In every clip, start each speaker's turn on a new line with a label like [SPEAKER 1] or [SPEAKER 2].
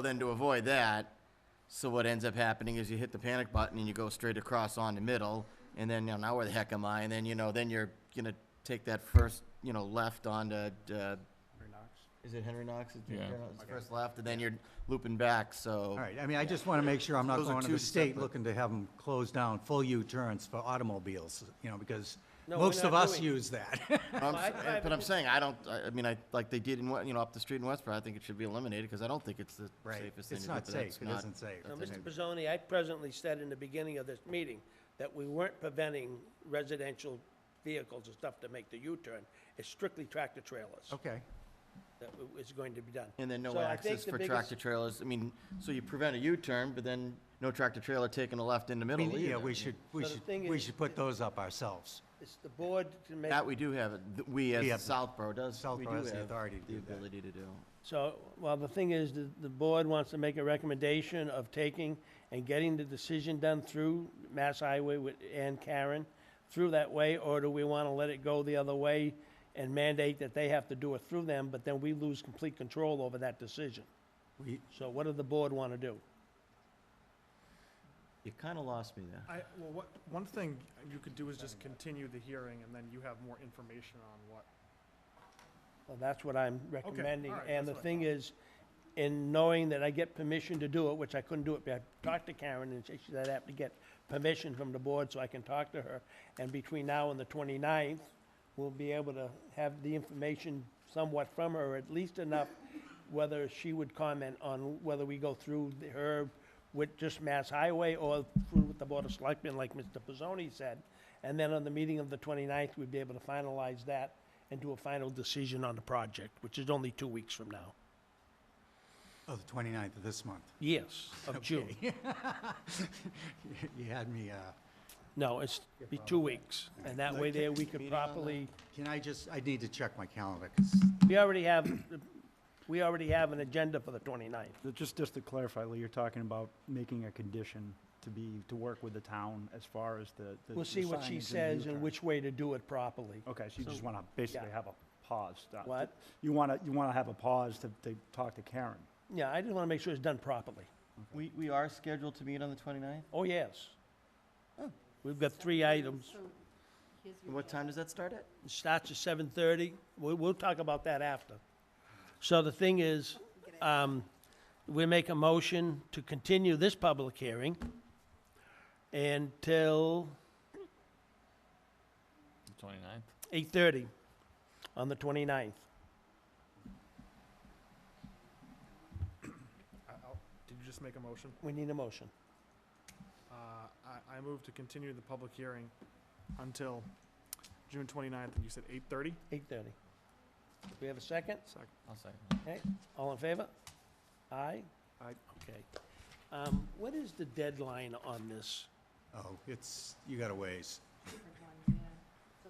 [SPEAKER 1] Then to avoid that, so what ends up happening is you hit the panic button and you go straight across on the middle, and then, you know, now where the heck am I? And then, you know, then you're gonna take that first, you know, left onto, uh, is it Henry Knox? Is it-
[SPEAKER 2] Yeah.
[SPEAKER 1] It's First left, and then you're looping back, so.
[SPEAKER 3] All right, I mean, I just want to make sure I'm not
[SPEAKER 1] Those are
[SPEAKER 3] going to
[SPEAKER 1] two
[SPEAKER 3] the state
[SPEAKER 1] separate-
[SPEAKER 3] looking to have them close down full U-turns for automobiles, you know, because
[SPEAKER 4] No, we're
[SPEAKER 3] most of
[SPEAKER 4] not
[SPEAKER 3] us
[SPEAKER 4] doing-
[SPEAKER 3] use that.
[SPEAKER 1] I'm s- eh,
[SPEAKER 4] I- I-
[SPEAKER 1] But I'm saying, I don't, I I mean, I, like they did in, Wa- you know, up the street in Westboro, I think it should be eliminated, because I don't think it's the
[SPEAKER 3] Right.
[SPEAKER 1] safest thing to
[SPEAKER 3] It's
[SPEAKER 1] do.
[SPEAKER 3] not
[SPEAKER 1] but that's
[SPEAKER 3] safe. It
[SPEAKER 1] not-
[SPEAKER 3] isn't safe.
[SPEAKER 4] Now,
[SPEAKER 1] that's
[SPEAKER 4] Mr.
[SPEAKER 1] an-
[SPEAKER 4] Pizzoni, I presently said in the beginning of this meeting that we weren't preventing residential vehicles and stuff to make the U-turn. It's strictly tractor trailers
[SPEAKER 3] Okay,
[SPEAKER 4] that w- is going to be done.
[SPEAKER 1] Oh. And then no
[SPEAKER 4] So I think
[SPEAKER 1] access
[SPEAKER 4] the
[SPEAKER 1] for
[SPEAKER 4] biggest-
[SPEAKER 1] tractor trailers, I mean, so you prevent a U-turn, but then no tractor trailer taking a left in the
[SPEAKER 3] I
[SPEAKER 1] middle
[SPEAKER 3] mean,
[SPEAKER 1] either.
[SPEAKER 3] yeah, we
[SPEAKER 1] I
[SPEAKER 3] should, we
[SPEAKER 4] So the
[SPEAKER 3] should,
[SPEAKER 4] thing
[SPEAKER 3] we
[SPEAKER 4] is-
[SPEAKER 3] should put those up ourselves.
[SPEAKER 4] It's the board to make,
[SPEAKER 1] That we do have, it. Th- we
[SPEAKER 3] We have
[SPEAKER 1] as
[SPEAKER 3] the-
[SPEAKER 1] Southborough does, we do
[SPEAKER 3] Southborough
[SPEAKER 1] have
[SPEAKER 3] has the authority to
[SPEAKER 1] the
[SPEAKER 3] do that.
[SPEAKER 1] ability to do.
[SPEAKER 4] so, well, the thing is, the, the board wants to make a recommendation of taking and getting the decision done through Mass Highway with, and Karen through that way, or do we want to let it go the other way and mandate that they have to do it through them, but then we lose complete control over that decision?
[SPEAKER 3] We,
[SPEAKER 4] So what does the board want to do?
[SPEAKER 1] You kind of lost me there.
[SPEAKER 5] I, well, what, one thing you could do is just continue the hearing and then you have more information on what.
[SPEAKER 4] Well, that's what I'm recommending,
[SPEAKER 5] all right,
[SPEAKER 4] and the
[SPEAKER 5] that's what I
[SPEAKER 4] thing
[SPEAKER 5] thought.
[SPEAKER 4] is, in knowing that I get permission to do it, which I couldn't do it, but I talked to Karen, and she said I'd have to get permission from the board so I can talk to her, and between now and the 29th, we'll be able to have the information somewhat from her, at least enough, whether she would comment on whether we go through the- her with just Mass Highway or through with the Board of Selectmen, like Mr. Pizzoni said, and then on the meeting of the 29th, we'd be able to finalize that and do a final decision on the project, which is only two weeks from now.
[SPEAKER 3] oh, the 29th of this month.
[SPEAKER 4] Yes, of June.
[SPEAKER 3] You had me, uh,
[SPEAKER 4] No, it's be two weeks, and that way there we could properly,
[SPEAKER 3] can I just, I need to check my calendar, 'cause
[SPEAKER 4] we already have, we already have an agenda for the 29th.
[SPEAKER 6] But Just, just to clarify, Lee, you're talking about making a condition to be, to work with the town as far as the. the-
[SPEAKER 4] We'll
[SPEAKER 6] the
[SPEAKER 4] see what she
[SPEAKER 6] signage
[SPEAKER 4] says
[SPEAKER 6] the
[SPEAKER 4] and
[SPEAKER 6] U-turn.
[SPEAKER 4] which way to do it properly.
[SPEAKER 6] Okay, so you just want to basically
[SPEAKER 4] yeah.
[SPEAKER 6] have a pause. uh, to-
[SPEAKER 4] What?
[SPEAKER 6] You want to, you want to have a pause to, to talk to Karen.
[SPEAKER 4] Yeah, I just want to make sure it's done properly.
[SPEAKER 1] We, we are scheduled to meet on the 29th?
[SPEAKER 4] Oh, yes. We've got three items.
[SPEAKER 1] What time does that start at?
[SPEAKER 4] It starts at 7:30. We'll, we'll talk about that after. So the thing is, um, we make a motion to continue this public hearing until
[SPEAKER 2] Twenty-ninth?
[SPEAKER 4] 8:30 on the 29th.
[SPEAKER 5] I- I'll- Did you just make a motion?
[SPEAKER 4] We need a motion.
[SPEAKER 5] Uh, I, I move to continue the public hearing until June 29th, and you said 8:30?
[SPEAKER 4] 8:30. We have a second?
[SPEAKER 5] Second.
[SPEAKER 2] I'll second.
[SPEAKER 4] All in favor? Aye?
[SPEAKER 5] Aye.
[SPEAKER 4] Okay. Um, What is the deadline on this?
[SPEAKER 3] oh, it's, you got a ways.
[SPEAKER 7] So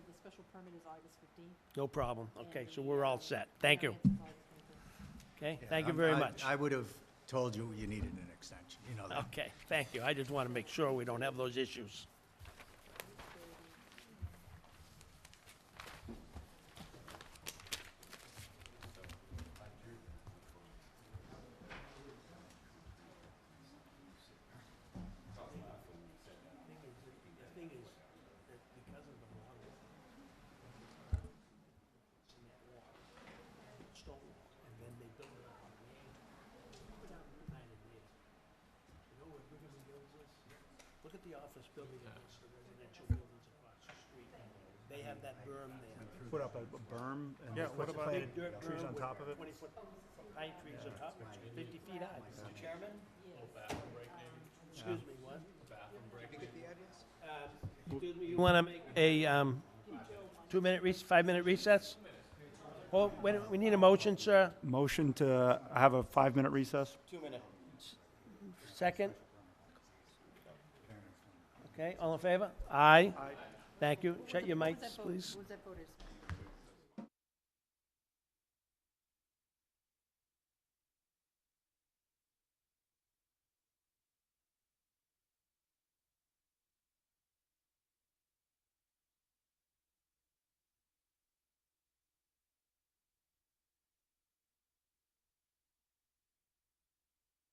[SPEAKER 7] the special permit is August fifteenth.
[SPEAKER 4] No problem. Okay, so we're all set. Thank you. Okay, thank you
[SPEAKER 3] I'm-
[SPEAKER 4] very
[SPEAKER 3] I-
[SPEAKER 4] much.
[SPEAKER 3] I would have told you you needed an extension, you know that.
[SPEAKER 4] Okay, thank you. I just want to make sure we don't have those issues. Look at the office building against the residential buildings across the street. They have that berm there.
[SPEAKER 6] Put up a berm and.
[SPEAKER 5] Yeah, what about,
[SPEAKER 4] Big dirt
[SPEAKER 6] trees
[SPEAKER 4] berm
[SPEAKER 6] on
[SPEAKER 4] with
[SPEAKER 6] top of it?
[SPEAKER 4] Twenty-foot pine trees on top, which is fifty feet high. Mr. Chairman? Excuse me, what? Um, Excuse me, you want to make a, um, two-minute recess, five-minute recess? Well, wait, a- we need a motion, sir.
[SPEAKER 6] Motion to have a five-minute recess?
[SPEAKER 1] Two minutes.
[SPEAKER 4] Second? Okay, all in favor? Aye.
[SPEAKER 5] Aye.
[SPEAKER 4] Thank you. Shut your mics, please.
[SPEAKER 7] Was that voted?